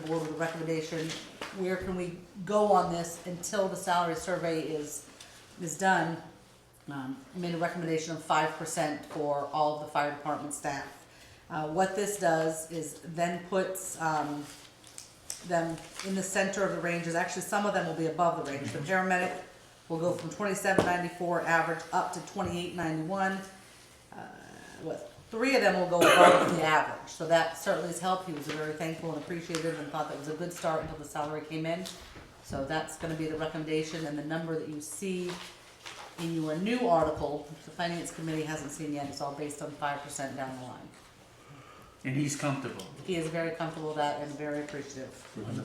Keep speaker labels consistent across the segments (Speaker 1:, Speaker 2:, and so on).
Speaker 1: board with a recommendation, where can we go on this until the salary survey is, is done? Um, I made a recommendation of five percent for all of the fire department staff. Uh, what this does is then puts, um, them in the center of the ranges, actually, some of them will be above the range, the paramedic will go from twenty-seven ninety-four average up to twenty-eight ninety-one what, three of them will go above the average, so that certainly has helped, he was very thankful and appreciative and thought that was a good start until the salary came in. So that's gonna be the recommendation, and the number that you see in your new article, which the finance committee hasn't seen yet, it's all based on five percent down the line.
Speaker 2: And he's comfortable.
Speaker 1: He is very comfortable with that and very appreciative.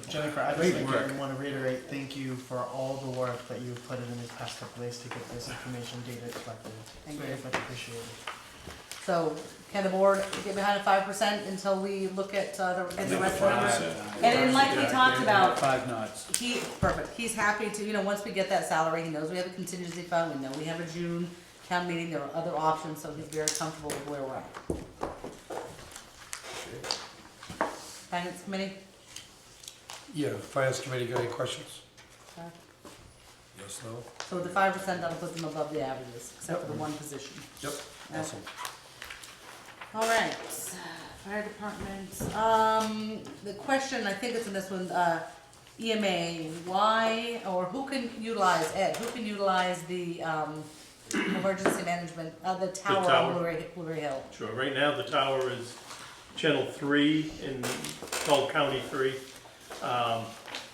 Speaker 3: Jennifer, I'd just
Speaker 2: Great
Speaker 3: like
Speaker 2: work.
Speaker 3: to want to reiterate, thank you for all the work that you've put in these past couple days to get this information data collected. It's
Speaker 1: Thank
Speaker 3: very
Speaker 1: you.
Speaker 3: much appreciated.
Speaker 1: So can the board get behind a five percent until we look at, uh, the, at the rest of it? And then like we talked about,
Speaker 2: Five knots.
Speaker 1: He, perfect, he's happy to, you know, once we get that salary, he knows we have a contingency fund, we know we have a June town meeting, there are other options, so he's very comfortable with where we're at. Finance committee?
Speaker 4: Yeah, finance committee, got any questions?
Speaker 1: Uh,
Speaker 4: Yes, no?
Speaker 1: So with the five percent, that'll put them above the averages, except for the one position.
Speaker 4: Yep. Awesome.
Speaker 1: All right, fire department, um, the question, I think it's in this one, uh, EMA, why, or who can utilize, Ed, who can utilize the, um, emergency management, uh, the tower on
Speaker 5: tower.
Speaker 1: Blueberry, Blueberry Hill?
Speaker 5: Sure, right now the tower is channel three in, called county three. Um,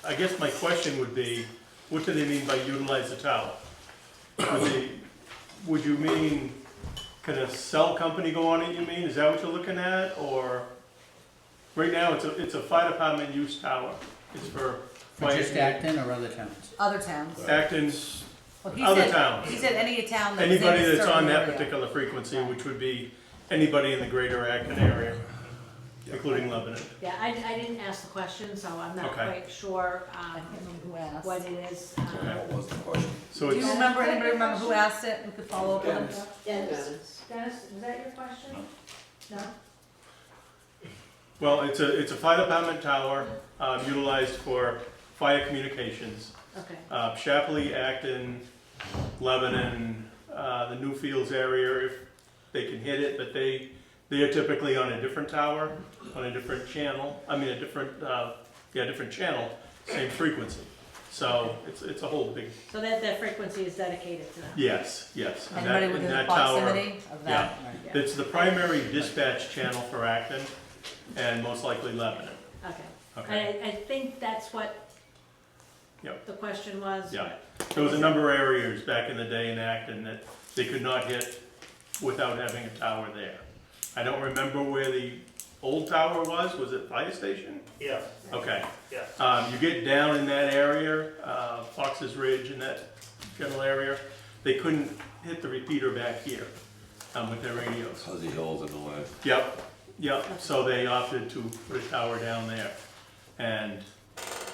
Speaker 5: I guess my question would be, what do they mean by utilize the tower? Would they, would you mean, can a cell company go on it, you mean, is that what you're looking at, or? Right now, it's a, it's a fire department use tower, it's for.
Speaker 2: For
Speaker 5: fire-
Speaker 2: just Acton or other towns?
Speaker 1: Other towns?
Speaker 5: Acton's,
Speaker 1: Well, he
Speaker 5: Uh, Other
Speaker 1: said-
Speaker 5: towns.
Speaker 1: He said any town that's in a
Speaker 5: anybody that's on
Speaker 1: certain
Speaker 5: that
Speaker 1: area.
Speaker 5: particular frequency, which would be anybody in the greater Acton area, including Lebanon.
Speaker 6: Yeah, I, I didn't ask the question, so I'm not
Speaker 5: Okay.
Speaker 6: quite sure,
Speaker 1: I
Speaker 6: um,
Speaker 1: can't remember who asked.
Speaker 6: what it is. um,
Speaker 5: Okay.
Speaker 4: was the question?
Speaker 5: So
Speaker 1: Do
Speaker 5: it's,
Speaker 1: you remember, anybody remember who asked it, who could follow up with them?
Speaker 6: Dennis, Dennis, was that your question? No?
Speaker 5: well, it's a, it's a fire department tower um, utilized for fire communications.
Speaker 6: Okay,
Speaker 5: Uh, Shapley, Acton, Lebanon, uh, the Newfields area, if they can hit it, but they, they are typically on a different tower, on a different channel, I mean, a different, uh, yeah, different channel, same frequency. So it's, it's a whole big,
Speaker 6: so that, that frequency is dedicated to them?
Speaker 5: yes, yes. and that-
Speaker 1: Anybody
Speaker 5: and
Speaker 1: within the
Speaker 5: that tower-
Speaker 1: proximity of that?
Speaker 6: Yeah.
Speaker 5: It's the primary dispatch channel for Acton and most likely Lebanon.
Speaker 6: Okay,
Speaker 5: Okay.
Speaker 6: I, I think that's what
Speaker 5: Yep.
Speaker 6: the question was.
Speaker 5: Yeah, there was a number of areas back in the day in Acton that they could not hit without having a tower there. I don't remember where the old tower was, was it fire station?
Speaker 7: Yeah,
Speaker 5: Okay.
Speaker 7: yeah.
Speaker 5: Um, you get down in that area, uh, Fox's Ridge and that general area, they couldn't hit the repeater back here, um, with their radios.
Speaker 8: Fuzzy holes in the way.
Speaker 5: Yep, yep, so they opted to put a tower down there. And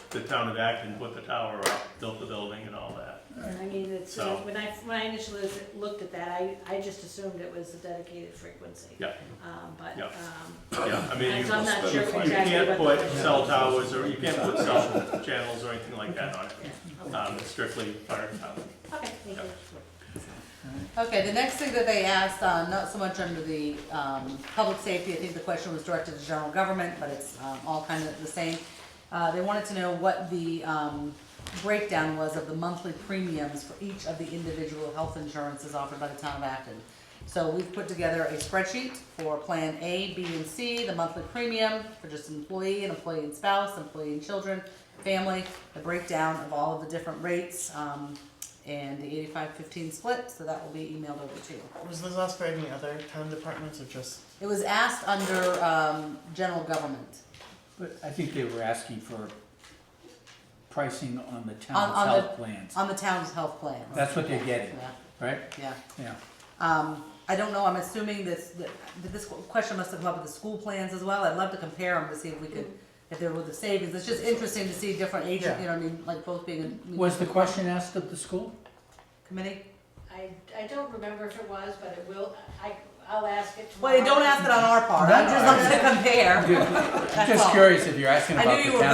Speaker 5: the town of Acton put the tower up, built the building and all that.
Speaker 6: I mean, it's,
Speaker 5: So-
Speaker 6: when I, when I initially looked at that, I, I just assumed it was a dedicated frequency.
Speaker 5: Yeah.
Speaker 6: Um, but,
Speaker 5: Yeah.
Speaker 6: um,
Speaker 5: Yeah, I mean, you,
Speaker 6: and so I'm not sure
Speaker 5: you
Speaker 6: exactly what.
Speaker 5: can't put
Speaker 6: the-
Speaker 5: cell towers or you can't put cell channels or anything like that on it.
Speaker 6: Yeah, okay.
Speaker 5: Um, it's strictly fire tower.
Speaker 6: Okay, thank
Speaker 5: Yeah.
Speaker 6: you.
Speaker 1: Okay, the next thing that they asked, uh, not so much under the, um, public safety, I think the question was directed to general government, but it's, um, all kind of the same. Uh, they wanted to know what the, um, breakdown was of the monthly premiums for each of the individual health insurances offered by the town of Acton. So we've put together a spreadsheet for Plan A, B, and C, the monthly premium for just employee and employee and spouse, employee and children, family, the breakdown of all of the different rates, um, and the eighty-five fifteen split, so that will be emailed over to you.
Speaker 3: Was this asked for any other town departments or just?
Speaker 1: It was asked under, um, general government,
Speaker 2: But I think they were asking for pricing on the
Speaker 1: On-
Speaker 2: town's
Speaker 1: on the-
Speaker 2: health plans.
Speaker 1: on the town's health plan.
Speaker 2: That's what they're getting,
Speaker 1: Yeah,
Speaker 2: right?
Speaker 1: yeah.
Speaker 2: Yeah.
Speaker 1: Um, I don't know, I'm assuming this, that this question must have come up with the school plans as well, I'd love to compare them to see if we could, if there were the savings, it's just interesting to see different agents, you know, what I mean, like both being in.
Speaker 2: Was the question asked of the school?
Speaker 1: Committee?
Speaker 6: I, I don't remember if it was, but it will, I, I'll ask it tomorrow.
Speaker 1: Well, don't ask it on our part, I'm just looking to compare,
Speaker 2: Just
Speaker 1: all.
Speaker 2: curious if you're asking
Speaker 1: I knew
Speaker 2: about
Speaker 1: you
Speaker 2: the
Speaker 1: were
Speaker 2: town.